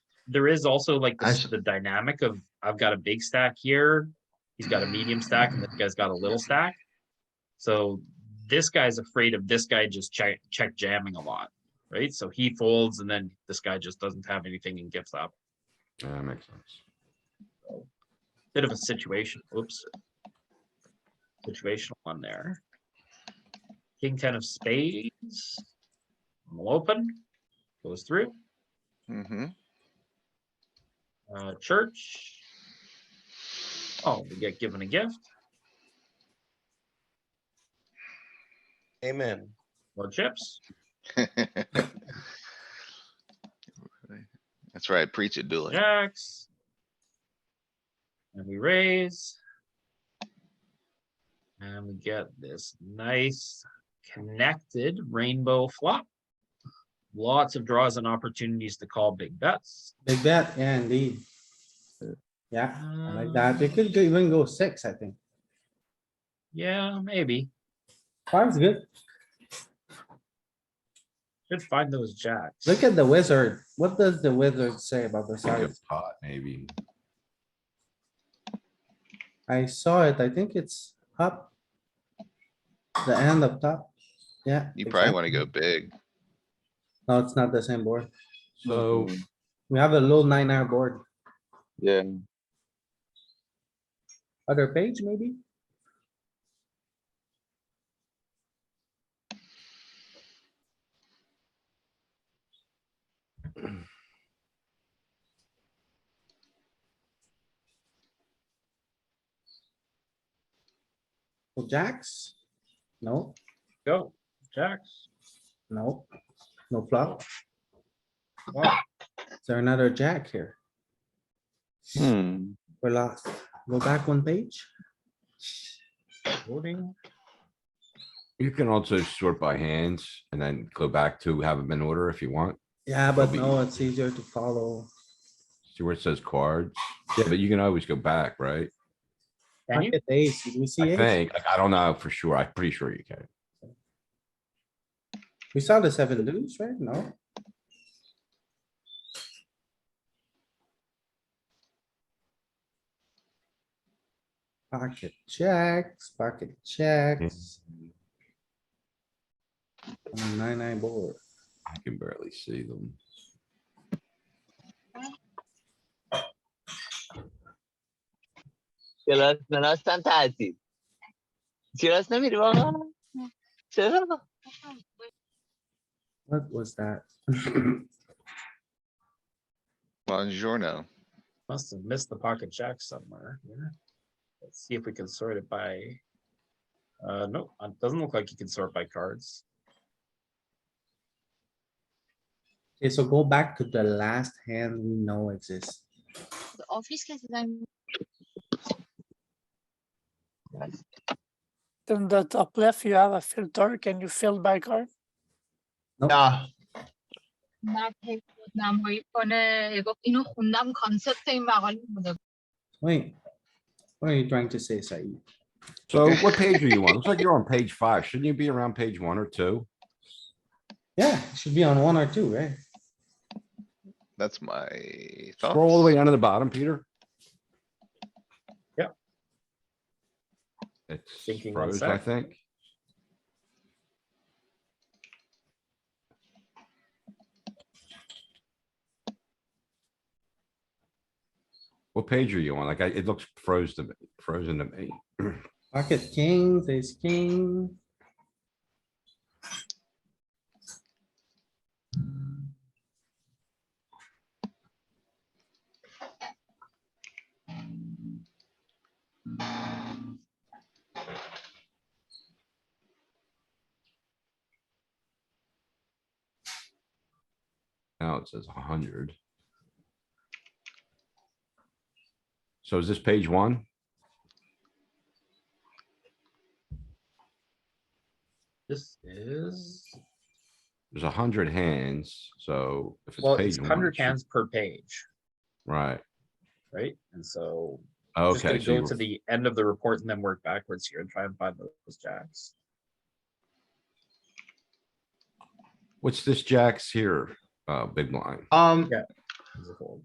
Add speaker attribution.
Speaker 1: there is also like
Speaker 2: I
Speaker 1: this,
Speaker 2: s-
Speaker 1: the dynamic of I've got a big stack here, he's got a medium stack, and this guy's got a little stack. So this guy's afraid of this guy just check check jamming a lot, right? So he folds, and then this guy just doesn't have anything and gives up.
Speaker 3: Yeah, that makes sense.
Speaker 1: Bit of a situation. Oops. Situational one there. King ten of spades. will open. Goes through.
Speaker 4: Mm-hmm.
Speaker 1: Uh, church. Oh, we get given a gift.
Speaker 5: Amen.
Speaker 1: More chips.
Speaker 4: That's right, preach it, do it.
Speaker 1: Jacks. And we raise. And we get this nice connected rainbow flop. Lots of draws and opportunities to call big bets.
Speaker 6: Big bet, yeah, indeed. Yeah, I
Speaker 1: Um,
Speaker 6: like that. It could go- even go six, I think.
Speaker 1: Yeah, maybe.
Speaker 6: Five's good.
Speaker 1: Should find those jacks.
Speaker 6: Look at the wizard. What does the wizard say about the
Speaker 3: Like a
Speaker 6: size?
Speaker 3: pot, maybe.
Speaker 6: I saw it. I think it's up. The end up top. Yeah.
Speaker 4: You probably wanna
Speaker 6: exactly.
Speaker 4: go big.
Speaker 6: No, it's not the same board.
Speaker 3: So
Speaker 6: We have a little nine hour board.
Speaker 7: Yeah,
Speaker 6: Other page, maybe? Well, jacks? No,
Speaker 1: Go, jacks.
Speaker 6: no, no flop.
Speaker 1: Wow.
Speaker 6: Is there another jack here?
Speaker 7: hmm.
Speaker 6: We're lost. Go back one page.
Speaker 1: Voting.
Speaker 3: you can also sort by hands and then go back to have them in order if you want.
Speaker 6: Yeah, but
Speaker 3: be
Speaker 6: no, it's easier to follow.
Speaker 3: See where it says cards? Yeah, but you can always go back, right?
Speaker 1: Can you?
Speaker 6: Pocket ace, did we see
Speaker 3: I
Speaker 6: ace?
Speaker 3: think, like, I don't know for sure. I'm pretty sure you can.
Speaker 6: We saw the seven deuce, right? No? Pocket checks, pocket checks. On a Nine, nine board.
Speaker 3: I can barely see them.
Speaker 7: Sila na nas tantasi. Sila na mirwa. Sila.
Speaker 6: What was that?
Speaker 4: Buongiorno.
Speaker 1: Must have missed the pocket jack somewhere. here. Let's see if we can sort it by. Uh, no, it doesn't look like you can sort by cards.
Speaker 6: Okay, so go back to the last hand we know exists.
Speaker 8: De office krijgt het dan
Speaker 9: Then the top left, you have a filter. Can you fill by card?
Speaker 5: Yeah,
Speaker 8: maar heeft het nou mooi van eh ik ook in een goednaam concept zijn maar al moet ik
Speaker 6: Wait, what are you trying to say, Said?
Speaker 3: So what page are you on? Looks like you're on page five. Shouldn't you be around page one or two?
Speaker 6: Yeah, it should be on one or two, right?
Speaker 4: That's my thoughts.
Speaker 3: Scroll all
Speaker 1: Oh.
Speaker 3: the way down to the bottom, Peter.
Speaker 1: Yep.
Speaker 3: It's
Speaker 1: Thinking one
Speaker 3: froze, I
Speaker 1: sec.
Speaker 3: think. What page are you on? Like, I- it looks froze to me, frozen to me.
Speaker 6: Pocket kings, ace king.
Speaker 3: Now it says hundred. So is this page one?
Speaker 1: This is,
Speaker 3: There's hundred hands, so if it's
Speaker 1: well,
Speaker 3: page
Speaker 1: it's
Speaker 3: one.
Speaker 1: hundred
Speaker 3: it should-
Speaker 1: hands per page,
Speaker 3: Right,
Speaker 1: right? And so. I'm just
Speaker 3: okay.
Speaker 1: gonna
Speaker 3: so you
Speaker 1: Go
Speaker 3: were-
Speaker 1: to the end of the report and then work backwards here and try and find those jacks.
Speaker 3: What's this jacks here, uh, big blind?
Speaker 5: um,
Speaker 1: Yeah. There's a fold.